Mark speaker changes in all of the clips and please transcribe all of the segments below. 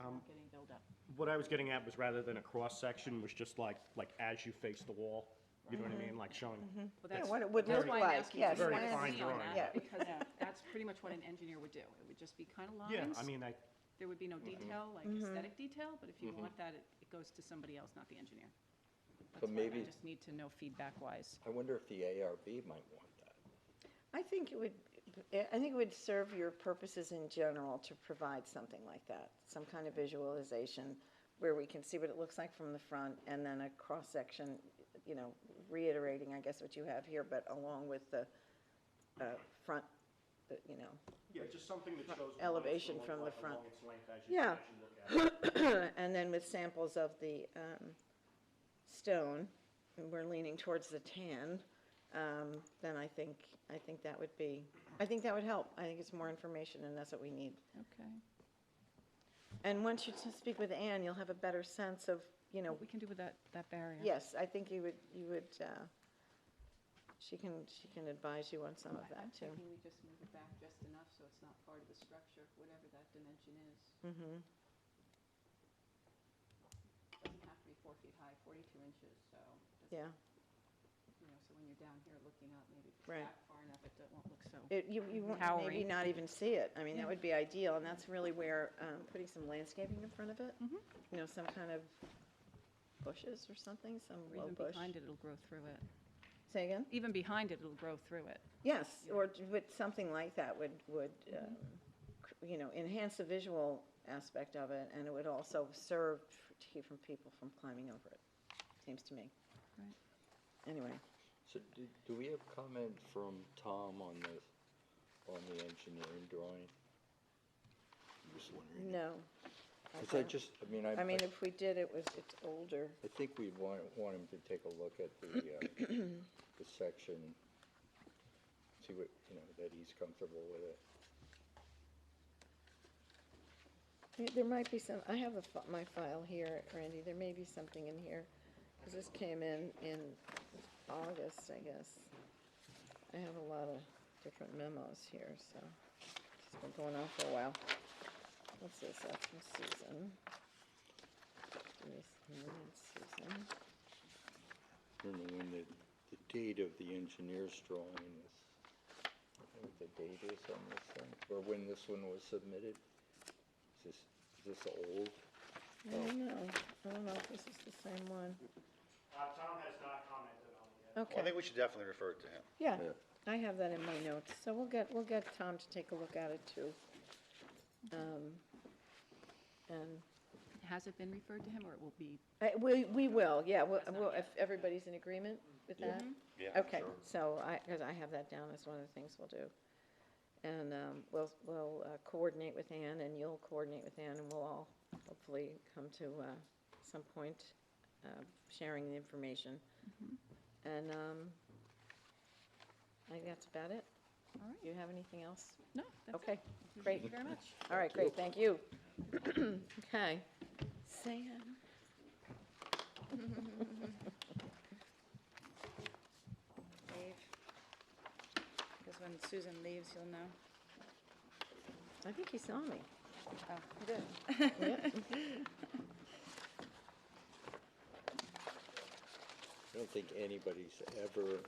Speaker 1: Um,
Speaker 2: not getting built up.
Speaker 3: What I was getting at was rather than a cross-section, was just like, like as you face the wall, you know what I mean, like showing.
Speaker 2: Well, that's-
Speaker 1: what it would
Speaker 2: that's
Speaker 1: look
Speaker 2: why I'm
Speaker 1: like,
Speaker 2: asking
Speaker 1: yes,
Speaker 2: you
Speaker 3: Very
Speaker 2: what I
Speaker 3: fine
Speaker 2: see on
Speaker 3: drawing.
Speaker 2: that,
Speaker 1: Yeah.
Speaker 2: Because that's pretty much what an engineer would do. It would just be kind of lines.
Speaker 3: Yeah, I mean, I,
Speaker 2: There would be no
Speaker 1: mm-hmm.
Speaker 2: detail, like aesthetic detail, but if you want that, it it goes to somebody else, not the engineer. That's why I
Speaker 4: maybe-
Speaker 2: just need to know feedback-wise.
Speaker 4: I wonder if the ARB might want that.
Speaker 1: I think it would, I think it would serve your purposes in general to provide something like that, some kind of visualization where we can see what it looks like from the front and then a cross-section, you know, reiterating, I guess, what you have here, but along with the uh, front, the- you know,
Speaker 3: yeah, just something that shows. what it's gonna
Speaker 1: Elevation
Speaker 3: look
Speaker 1: from the
Speaker 3: like
Speaker 1: front.
Speaker 3: along its length as you-
Speaker 1: Yeah.
Speaker 3: as you look at it.
Speaker 1: and then with samples of the um, stone, and we're leaning towards the tan, um, then I think, I think that would be, I think that would help. I think it's more information and that's what we need.
Speaker 2: Okay.
Speaker 1: And once you t- speak with Anne, you'll have a better sense of, you know,
Speaker 2: What we can do with that, that barrier?
Speaker 1: yes, I think you would, you would, uh, she can, she can advise you on some of
Speaker 2: I'm
Speaker 1: that too.
Speaker 2: thinking we just move it back just enough so it's not part of the structure, whatever that dimension is.
Speaker 1: Mm-hmm,
Speaker 2: Doesn't have to be four feet high, 42 inches, so. doesn't-
Speaker 1: Yeah.
Speaker 2: You know, so when you're down here looking up, maybe if it's
Speaker 1: Right.
Speaker 2: back far enough, it don't- won't look so.
Speaker 1: It, you, you won't maybe
Speaker 2: Towering.
Speaker 1: not even see it. I mean, that would be ideal and that's really where, um, putting some landscaping in front of it.
Speaker 2: Mm-hmm.
Speaker 1: You know, some kind of bushes or something, some
Speaker 2: Or
Speaker 1: low
Speaker 2: even
Speaker 1: bush.
Speaker 2: behind it, it'll grow through it.
Speaker 1: Say again?
Speaker 2: Even behind it, it'll grow through it.
Speaker 1: Yes, or t- would, something like that would, would, um, cr- you know, enhance the visual aspect of it, and it would also serve f- to keep from people from climbing over it, seems to me.
Speaker 2: Right.
Speaker 1: Anyway,
Speaker 4: So do, do we have comment from Tom on the, on the engineering drawing? I'm just wondering.
Speaker 1: no.
Speaker 4: Because I
Speaker 1: don't-
Speaker 4: just, I mean, I,
Speaker 1: I mean,
Speaker 4: I
Speaker 1: if we did, it was, it's older.
Speaker 4: think we'd want, want him to take a look at the, uh, the section, see what, you know, that he's comfortable with it.
Speaker 1: There- There might be some, I have a fi- my file here, Randy, there may be something in here, 'cause this came in in August, I guess. I have a lot of different memos here, so it's been going on for a while. What's this, that's from Susan. Give me some minutes, Susan.
Speaker 4: I don't know when the, the date of the engineer's drawing is, I don't know what the date is on this thing, or when this one was submitted. Is this, is this old?
Speaker 5: Oh.
Speaker 1: I don't know, I don't know if this is the same one.
Speaker 3: Uh, Tom has not commented on it yet.
Speaker 5: Well, I
Speaker 1: Okay,
Speaker 5: think we should definitely refer it to him.
Speaker 1: yeah, I have that in my notes, so we'll get, we'll get Tom to take a look at it too. Um, And
Speaker 2: Has it been referred to him, or it will be?
Speaker 1: I- Uh, We, we will, yeah, we'll-
Speaker 2: That's not
Speaker 1: we'll-
Speaker 2: yet.
Speaker 1: if everybody's in agreement with that?
Speaker 5: Yeah,
Speaker 1: Okay,
Speaker 5: sure.
Speaker 1: so I, because I have that down as one of the things we'll do. And um, we'll, we'll uh, coordinate with Ann, and you'll coordinate with Ann, and we'll all hopefully come to uh, some point uh, sharing the information.
Speaker 2: Mm-hmm.
Speaker 1: And um, I think that's about it.
Speaker 2: All right.
Speaker 1: Do you have anything else?
Speaker 2: No, that's it.
Speaker 1: Okay,
Speaker 2: Thank you
Speaker 1: great.
Speaker 2: very much.
Speaker 1: All right, great, thank you. Okay. Sam?
Speaker 6: Dave. Because when Susan leaves, you'll know.
Speaker 1: I think he saw me.
Speaker 6: Oh, you did.
Speaker 4: I don't think anybody's ever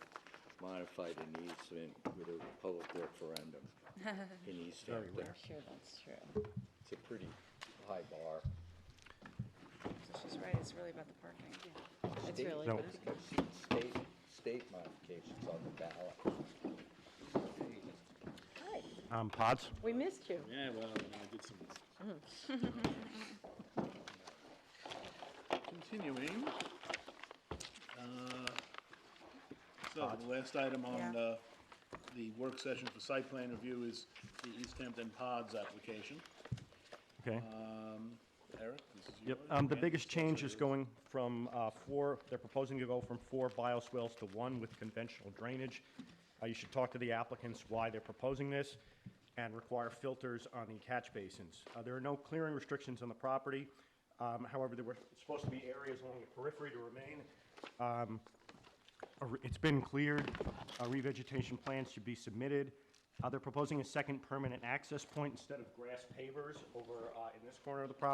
Speaker 4: modified an easement with a public referendum in East
Speaker 3: Very
Speaker 4: Hampton.
Speaker 3: rare.
Speaker 1: Sure, that's true.
Speaker 4: It's a pretty high bar.
Speaker 6: So she's right, it's really about the parking.
Speaker 1: It's
Speaker 4: State-
Speaker 1: really,
Speaker 3: No.
Speaker 1: but it's good.
Speaker 4: State, state modifications on the ballot.
Speaker 1: Hi,
Speaker 3: Um, pods?
Speaker 1: we missed you.
Speaker 7: Yeah, well, and I did some. Continuing. uh, So the last item on
Speaker 6: Yeah.
Speaker 7: uh, the work session for site plan review is the East Hampton Pods application.
Speaker 3: Okay.
Speaker 7: Eric, this is yours.
Speaker 3: Yep, um, the
Speaker 7: Okay.
Speaker 3: biggest change is going from, uh, four, they're proposing to go from four bioswales to one with conventional drainage. Uh, you should talk to the applicants why they're proposing this and require filters on the catch basins. Uh, there are no clearing restrictions on the property. Um, however, there were supposed to be areas along the periphery to remain. Um, A re- It's been cleared, Uh, revegetation plans should be submitted. Uh, They're proposing a second permanent access point instead of grass pavers over uh, in this corner of the property.